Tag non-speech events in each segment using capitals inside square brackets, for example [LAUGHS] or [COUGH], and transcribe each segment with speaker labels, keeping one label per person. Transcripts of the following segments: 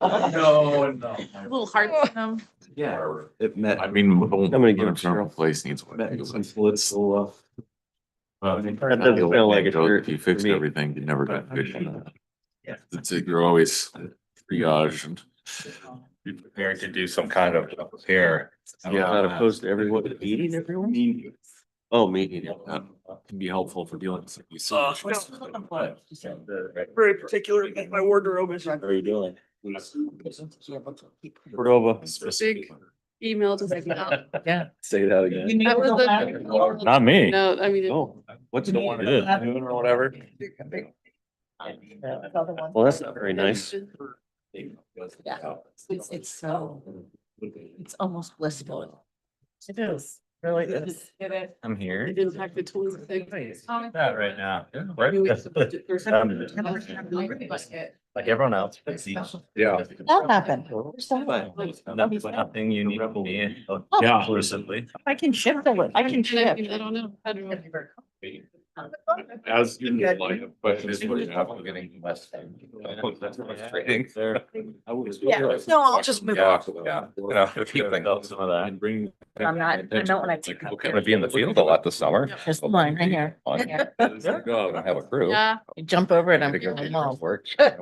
Speaker 1: No, no.
Speaker 2: Little hearts in them.
Speaker 3: Yeah, it met.
Speaker 4: I mean. I'm
Speaker 3: gonna give it to Cheryl.
Speaker 4: Place needs one.
Speaker 3: met
Speaker 4: It
Speaker 3: its
Speaker 4: was-
Speaker 3: political, uh,
Speaker 4: I
Speaker 3: That doesn't
Speaker 4: feel
Speaker 3: sound
Speaker 4: like
Speaker 3: like a
Speaker 4: Joe,
Speaker 3: shirt
Speaker 4: If you
Speaker 3: for
Speaker 4: fixed
Speaker 3: me.
Speaker 4: everything, you never
Speaker 3: But
Speaker 4: got
Speaker 3: I
Speaker 4: good.
Speaker 3: mean,
Speaker 1: yeah.
Speaker 4: It's like you're always triage and.
Speaker 1: Be prepared to do some kind of repair.
Speaker 3: I'm not opposed to everyone meeting everyone. Oh, meeting.
Speaker 4: That can be helpful for dealing with. you see.
Speaker 5: Uh, Very particular, about my wardrobe is.
Speaker 3: How are you doing? Cordova.
Speaker 6: Big email to like, no,
Speaker 2: Yeah.
Speaker 3: Say that again.
Speaker 6: [LAUGHS] that was
Speaker 1: Not
Speaker 6: the.
Speaker 7: Not me.
Speaker 6: No, I mean,
Speaker 3: Oh, what's
Speaker 7: You
Speaker 3: going
Speaker 7: did.
Speaker 3: on? Noon or whatever. Well, that's not very nice.
Speaker 2: Yeah.
Speaker 8: It's, it's so, it's almost blissful.
Speaker 2: It is, really is.
Speaker 7: I'm here.
Speaker 6: it impacted twenty-six.
Speaker 7: Not right now.
Speaker 6: I mean, we have to budget for something.
Speaker 7: Like everyone else.
Speaker 4: Yeah.
Speaker 8: That happened.
Speaker 7: Nothing you need to be. Oh,
Speaker 4: Yeah.
Speaker 7: Exclusively.
Speaker 8: I can shift a little, I can
Speaker 6: And I mean, I
Speaker 8: shift.
Speaker 6: don't know. I don't know.
Speaker 4: As in the line of question is what you have.
Speaker 8: Yeah, no, I'll just move on.
Speaker 4: Yeah.
Speaker 7: Some of that.
Speaker 4: And bring.
Speaker 8: I'm not- I don't wanna take
Speaker 4: People
Speaker 8: up
Speaker 4: can't
Speaker 8: there.
Speaker 4: be in the field a lot this summer.
Speaker 8: There's the line right here. Right here.
Speaker 4: No, I don't have a crew.
Speaker 6: Yeah.
Speaker 8: You jump over it, I'm
Speaker 4: Pick up
Speaker 8: going
Speaker 4: your
Speaker 8: home.
Speaker 4: first
Speaker 8: [LAUGHS]
Speaker 4: work.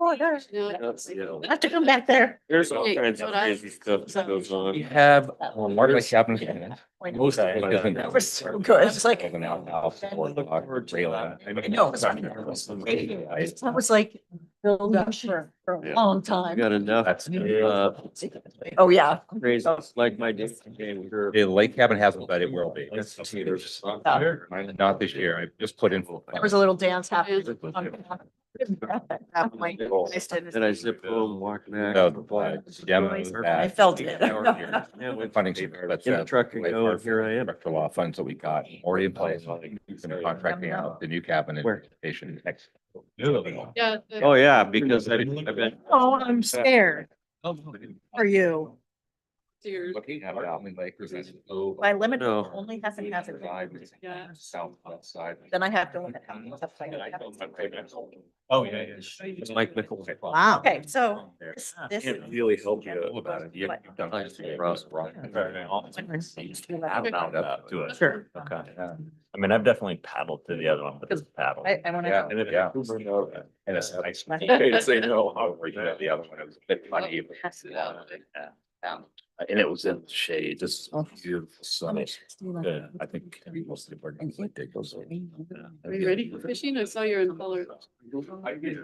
Speaker 8: Oh, there's,
Speaker 6: No.
Speaker 3: That's, you know,
Speaker 8: I have to come back there.
Speaker 3: There's all
Speaker 6: Hey,
Speaker 3: kinds of
Speaker 6: what I-
Speaker 3: crazy stuff that goes
Speaker 7: We
Speaker 3: on.
Speaker 7: have, well, Mark like happened.
Speaker 8: That
Speaker 7: Most of it.
Speaker 4: Okay.
Speaker 7: That
Speaker 8: was so good. It's like,
Speaker 7: An outhouse or
Speaker 8: Look
Speaker 7: or trailer. I
Speaker 8: know, it's on that was like build up for, for a long
Speaker 3: I
Speaker 8: time.
Speaker 3: got enough,
Speaker 7: That's.
Speaker 3: uh,
Speaker 8: Oh, yeah.
Speaker 3: crazy, like my dick game with her.
Speaker 7: The lake cabin hasn't, but it will be. Not this year. I just put in.
Speaker 8: There was a little dance happening.
Speaker 3: Yeah.
Speaker 8: on- at that point. I stood-
Speaker 3: Then I zip home, walk back.
Speaker 7: No, demos that-
Speaker 8: I felt
Speaker 3: [LAUGHS]
Speaker 8: it.
Speaker 3: Yeah, went
Speaker 7: Funding, that's.
Speaker 3: In the truck and go, and here I am.
Speaker 7: Director law funds that we got already in place, and contracting out the new cabinet
Speaker 3: Where?
Speaker 7: station next.
Speaker 6: Yeah. the-
Speaker 3: Oh, yeah, because I, I bet.
Speaker 8: Oh, I'm scared. Are you?
Speaker 6: Dear.
Speaker 7: Looking at Almond Lake. or is that-
Speaker 8: My limit
Speaker 3: No.
Speaker 8: only has an hazard.
Speaker 6: Yeah.
Speaker 7: Southwest side.
Speaker 8: Then I have to look at how much I've played.
Speaker 7: Oh, yeah, yeah.
Speaker 3: It's Mike Nichols.
Speaker 8: Wow. Okay, so
Speaker 7: There.
Speaker 8: this, this.
Speaker 3: Can't really help you.
Speaker 7: Know about it. You- you've done
Speaker 3: I
Speaker 7: it.
Speaker 3: Ross.
Speaker 7: Ross.
Speaker 8: I,
Speaker 6: don't know
Speaker 7: Up to it.
Speaker 8: Sure.
Speaker 7: Okay. yeah.
Speaker 5: I mean, I've definitely paddled to the other one, but it's paddle.
Speaker 8: I wanna.
Speaker 7: Yeah,
Speaker 8: go.
Speaker 7: and if- yeah. And it's
Speaker 8: [LAUGHS]
Speaker 7: nice.
Speaker 8: My-
Speaker 7: to say no, I'll read it. the other one. It was a bit funny. but-
Speaker 6: Pass it out. Yeah.
Speaker 7: Uh,
Speaker 5: And it was in the shade, just
Speaker 8: Oh.
Speaker 5: beautiful sunny.
Speaker 6: Oh.
Speaker 7: Good. I think most of the board members like that goes.
Speaker 6: Are you ready for fishing? I saw you're in color.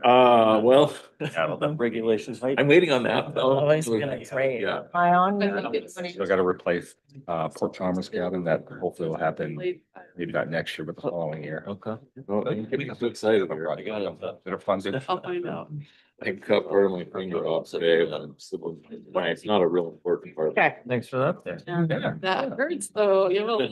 Speaker 3: Uh, well,
Speaker 5: Paddled them.
Speaker 3: [LAUGHS] regulations. I'm waiting on that.
Speaker 8: Oh, it's gonna be great.
Speaker 3: Yeah.
Speaker 8: My on.
Speaker 6: I think it's-
Speaker 7: I gotta replace uh Port Chalmers cabin that hopefully will happen
Speaker 6: Late.
Speaker 7: maybe not next year, but the following year.
Speaker 3: Okay.
Speaker 7: Well, I'm getting so excited about running out of that. They're funded.
Speaker 6: I'll find out.
Speaker 4: I cut part of my finger off today. um, so- It's not a real important part.
Speaker 7: Thanks for that.
Speaker 8: [LAUGHS]
Speaker 6: That hurts though. You have a